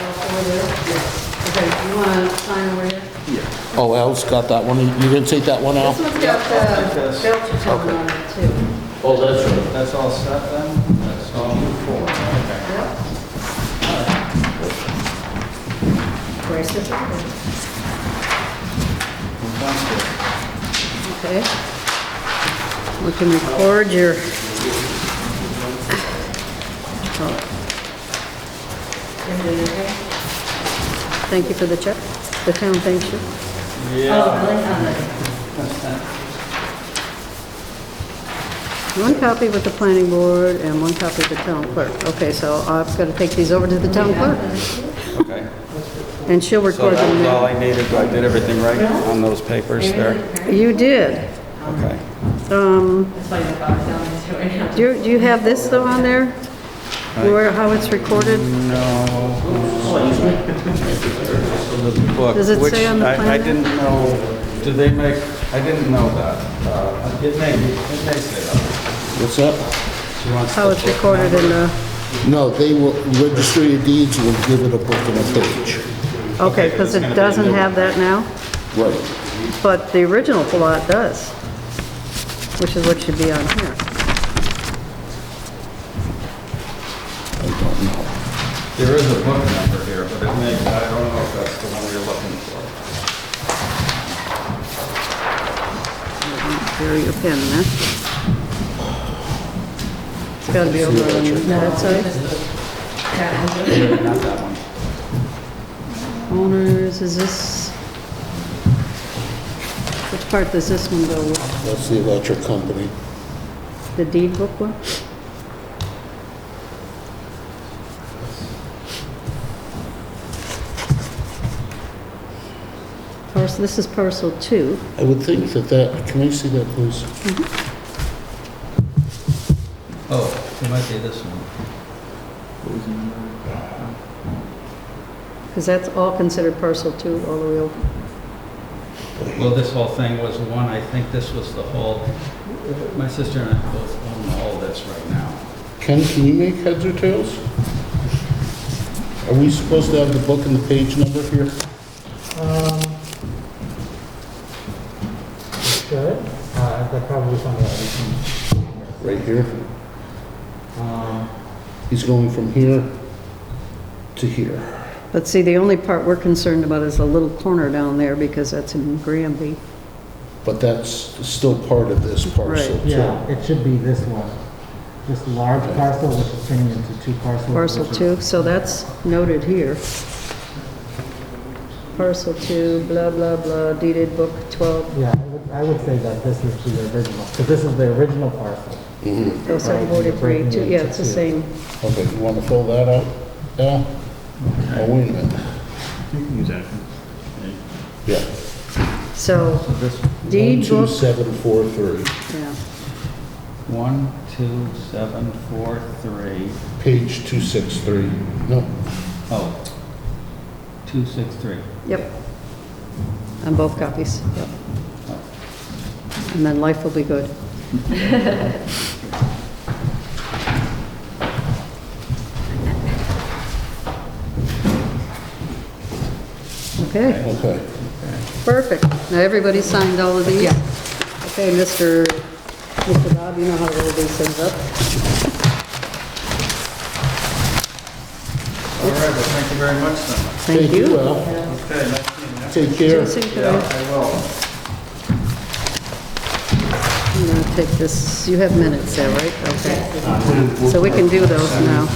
over there? Yeah. Okay, you want to sign over here? Oh, Al's got that one. You didn't take that one This out? one's got the Yes. Belcher tone on it too. Oh, that's right. That's all set then? That's all four. Okay. Very certificate. Sounds Okay. We can record your... Thank you for the check. The town thanks you. good. Yeah. Oh, really? One copy with the planning board and one copy with the town clerk. Okay, so I've got to take these over to the town clerk, Okay. and she'll So record that them was all there. I needed, I did everything right on those papers there? You did. Okay. Um, That's why the dog's down there right now. do you, do you have this though on there? Where, how it's recorded? Book, Does it which say on the I- I plan? didn't know, do they make, I didn't know that. Uh, It may, it may say that. What's that? She wants How the it's book recorded in the, No, they will, registry of deeds will give it a book and a page. okay, because it doesn't have that now, Right. but the original plot does, which is what should be on here. I don't know. There is a book number here, but it may, I don't know if that's the one you're looking for. Bury your pen there. It's got to be over on that side. Not that one. Owners, is this? Which part does this one go with? That's the electric company. The deed book one? Parcel, this is parcel two. I would think that that, can I see that, please? Oh, it might be this one. Because that's all considered parcel two, all the way over. Well, this whole thing was one, I think this was the whole, my sister and I both own all this right now. Ken, can you make heads or tails? Are we supposed to have the book and the page number here? Um, Good. Uh, that probably is on the other Right here. Um, He's going from here to here. But see, the only part we're concerned about is the little corner down there, because that's in Granby. But that's still part of this parcel Right. yeah, too. it should be this one. This large parcel, which is turning into two parcels. Parcel which is- two, so that's noted here. Parcel two, blah, blah, blah, deeded book 12, Yeah, I would, I would say that this is the original, because this is the original parcel. oh, 743, two, yeah, it's the same. Okay, you want to fill that out? Yeah? Oh, wait a minute. Yeah. So Oh, This, deed One, two, book, seven, four, three. yeah, one, two, seven, four, three. Page 263. No, Oh, two, six, three. yep. On both copies, yep. And then life will be good. Okay. okay. Perfect. Now, everybody signed all of these? Yeah. Okay, Mr. Mr. Bob, you know how to roll these things up. All right, well, thank you very much then. Thank you. Al. Okay, nice meeting Take care. Jason, can you. I- Yeah, I will. I'm going to take this, you have minutes there, right? Okay. So we can do those now.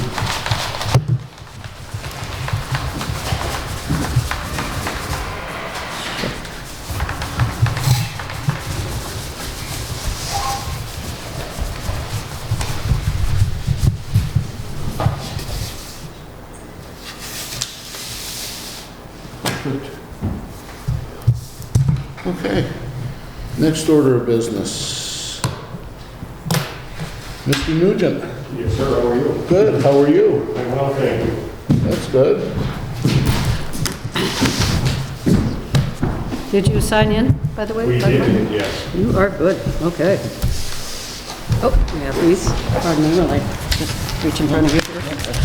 Okay. Next order of business. Mr. Nugent. Yes, sir, how are you? Good, how are you? I'm well, thank you. That's good. Did you sign in, by the way? We did, yes. You are good, okay. Oh, yeah, please, pardon me, really, just reach in front of you.